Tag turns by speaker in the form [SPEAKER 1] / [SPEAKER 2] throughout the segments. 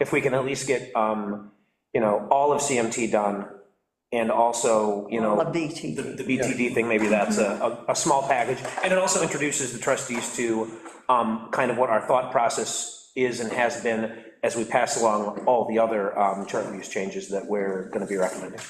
[SPEAKER 1] if we can at least get, um, you know, all of CMT done, and also, you know,
[SPEAKER 2] All of BTD.
[SPEAKER 1] the- The BTD thing, maybe that's a, a a small package, and it also introduces the trustees to um, kind of what our thought process is and has been as we pass along all the other um, charter use changes that we're gonna be recommending.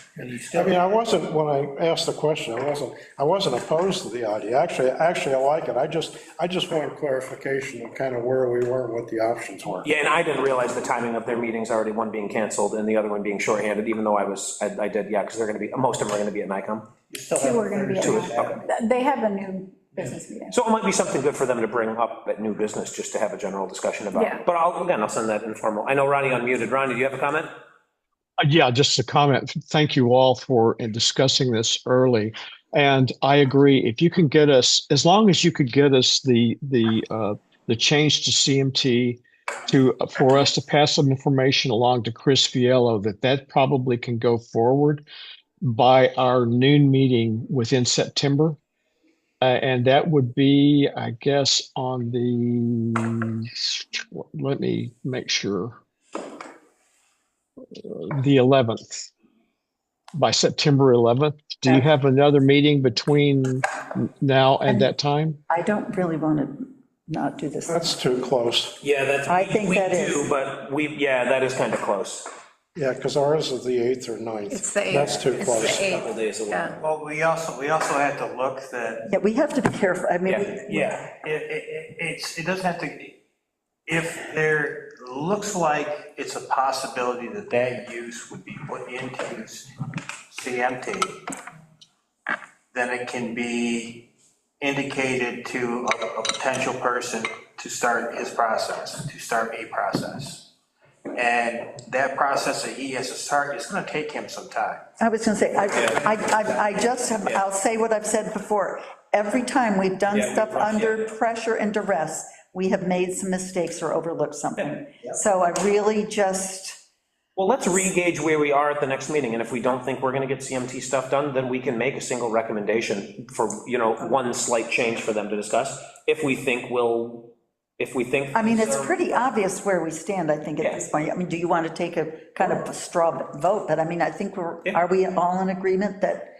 [SPEAKER 3] I mean, I wasn't, when I asked the question, I wasn't, I wasn't opposed to the idea. Actually, actually, I like it. I just, I just wanted clarification of kind of where we were and what the options were.
[SPEAKER 1] Yeah, and I didn't realize the timing of their meetings, already one being canceled and the other one being shorthanded, even though I was, I I did, yeah, because they're gonna be, most of them are gonna be at NICOM.
[SPEAKER 4] Two are gonna be at
[SPEAKER 1] Two,
[SPEAKER 4] Mount- th- They have a new business meeting.
[SPEAKER 1] So it might be something good for them to bring up at new business, just to have a general discussion about.
[SPEAKER 4] Yeah.
[SPEAKER 1] it. But I'll, again, I'll send that informal. I know Ronnie unmuted. Ronnie, do you have a comment?
[SPEAKER 5] Uh, Yeah, just a comment. Thank you all for uh, discussing this early. And I agree, if you can get us, as long as you could get us the, the, uh, the change to CMT to, uh, for us to pass some information along to Chris Fiello, that that probably can go forward by our noon meeting within September. Uh, and that would be, I guess, on the, let me make sure the 11th, by September 11th. Do you have another meeting between now and that time?
[SPEAKER 2] I don't really want to not do this.
[SPEAKER 3] That's too close.
[SPEAKER 1] Yeah, that's.
[SPEAKER 2] I think
[SPEAKER 1] we
[SPEAKER 2] that
[SPEAKER 1] do,
[SPEAKER 2] is-
[SPEAKER 1] But we, yeah, that is kind of close.
[SPEAKER 3] Yeah, because ours is the 8th or 9th.
[SPEAKER 6] It's the 8th.
[SPEAKER 3] That's too
[SPEAKER 6] It's the
[SPEAKER 3] close.
[SPEAKER 6] 8th.
[SPEAKER 1] Couple days away.
[SPEAKER 6] Yeah.
[SPEAKER 7] Well, we also, we also had to look that,
[SPEAKER 2] Yeah, we have to be careful. I mean,
[SPEAKER 1] Yeah,
[SPEAKER 2] we-
[SPEAKER 1] yeah.
[SPEAKER 7] it, it, it's, it doesn't have to, if there looks like it's a possibility that that use would be put into CMT, then it can be indicated to a, a potential person to start his process, to start a process. And that process that he has to start is gonna take him some time.
[SPEAKER 2] I was going to say, I, I, I- I just have, I'll say what I've said before. Every time we've done
[SPEAKER 1] Yeah, we
[SPEAKER 2] stuff
[SPEAKER 1] rush,
[SPEAKER 2] under pressure and duress, we have made some mistakes or overlooked something. So I really just,
[SPEAKER 1] Well, let's re-gauge where we are at the next meeting, and if we don't think we're gonna get CMT stuff done, then we can make a single recommendation for, you know, one slight change for them to discuss, if we think we'll, if we think.
[SPEAKER 2] I mean, it's pretty obvious where we stand, I think, at this point. I mean, do you want to take a kind of a straw vote? But I mean, I think we're, are we all in agreement that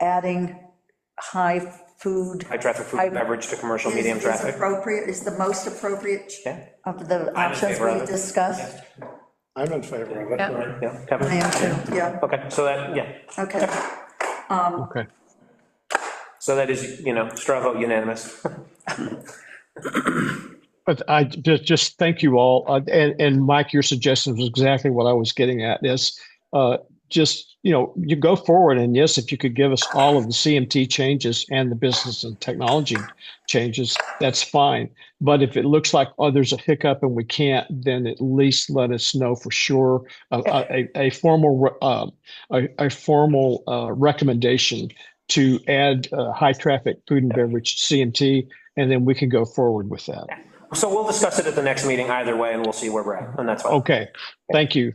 [SPEAKER 2] adding high food
[SPEAKER 1] High traffic food and beverage to commercial
[SPEAKER 2] is
[SPEAKER 1] medium
[SPEAKER 2] is
[SPEAKER 1] traffic.
[SPEAKER 2] appropriate, is the most appropriate ch-
[SPEAKER 1] Yeah.
[SPEAKER 2] of the
[SPEAKER 1] I'm in
[SPEAKER 2] options
[SPEAKER 1] favor of
[SPEAKER 2] we
[SPEAKER 1] it.
[SPEAKER 2] discussed?
[SPEAKER 3] I'm in favor of it.
[SPEAKER 6] Yeah.
[SPEAKER 1] Yeah, Kevin?
[SPEAKER 2] I am too, yeah,
[SPEAKER 1] Okay, so that, yeah,
[SPEAKER 2] okay.
[SPEAKER 5] Okay.
[SPEAKER 1] so that is, you know, straw vote unanimous.
[SPEAKER 5] But I just, just thank you all. Uh, And, and Mike, your suggestion was exactly what I was getting at is, uh, just, you know, you go forward and yes, if you could give us all of the CMT changes and the business and technology changes, that's fine. But if it looks like, oh, there's a hiccup and we can't, then at least let us know for sure. A, a, a- a formal, uh, a, a formal, uh, recommendation to add, uh, high traffic food and beverage CMT, and then we can go forward with that.
[SPEAKER 1] So we'll discuss it at the next meeting either way, and we'll see where we're at, and that's fine.
[SPEAKER 5] Okay, thank you.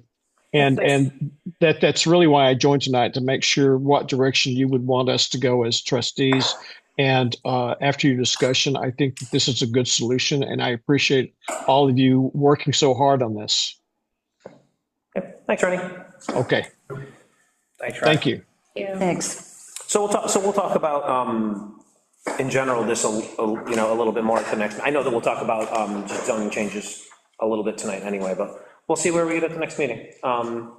[SPEAKER 5] And, and that, that's really why I joined tonight, to make sure what direction you would want us to go as trustees. And uh, after your discussion, I think that this is a good solution, and I appreciate all of you working so hard on this.
[SPEAKER 1] Thanks, Ronnie.
[SPEAKER 5] Okay,
[SPEAKER 1] Thanks,
[SPEAKER 5] thank you.
[SPEAKER 2] Thanks.
[SPEAKER 1] So we'll talk, so we'll talk about, um, in general, this, a- a- you know, a little bit more at the next, I know that we'll talk about um, just zoning changes a little bit tonight anyway, but we'll see where we get at the next meeting. Um,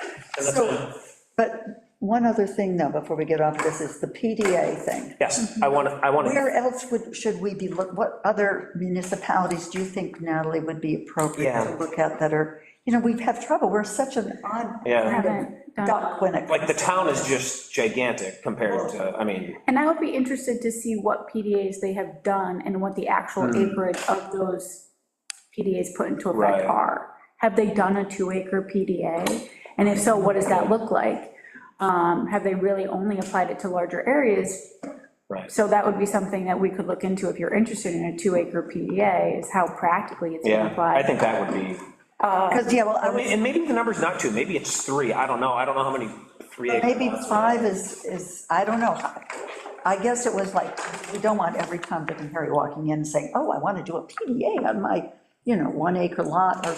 [SPEAKER 1] and that's fine.
[SPEAKER 2] But one other thing, though, before we get off this, is the PDA thing.
[SPEAKER 1] Yes, I want to, I want to,
[SPEAKER 2] Where else would, should we be, look? what other municipalities do you think, Natalie, would be appropriate
[SPEAKER 1] Yeah.
[SPEAKER 2] to look at that are, you know, we've had trouble, we're such an odd
[SPEAKER 1] Yeah.
[SPEAKER 2] kind of duck when it.
[SPEAKER 1] like, the town is just gigantic compared to, I mean,
[SPEAKER 4] And I would be interested to see what PDAs they have done and what the actual acreage of those PDAs put into
[SPEAKER 1] Hmm. Right.
[SPEAKER 4] effect are. Have they done a two-acre PDA? And if so, what does that look like? Um, Have they really only applied it to larger areas?
[SPEAKER 1] Right.
[SPEAKER 4] So that would be something that we could look into if you're interested in a two-acre PDA, is how practically it's been
[SPEAKER 1] yeah, I
[SPEAKER 4] applied. Uh,
[SPEAKER 1] think that would be,
[SPEAKER 2] Because, yeah, well, I
[SPEAKER 1] I mean,
[SPEAKER 2] was,
[SPEAKER 1] and maybe the number's not two, maybe it's three, I don't know, I don't know how many three acre
[SPEAKER 2] maybe
[SPEAKER 1] lots.
[SPEAKER 2] five is, is, I don't know. I guess it was like, we don't want every Tom, Dick, and Harry walking in and saying, oh, I want to do a PDA on my, you know, one acre lot or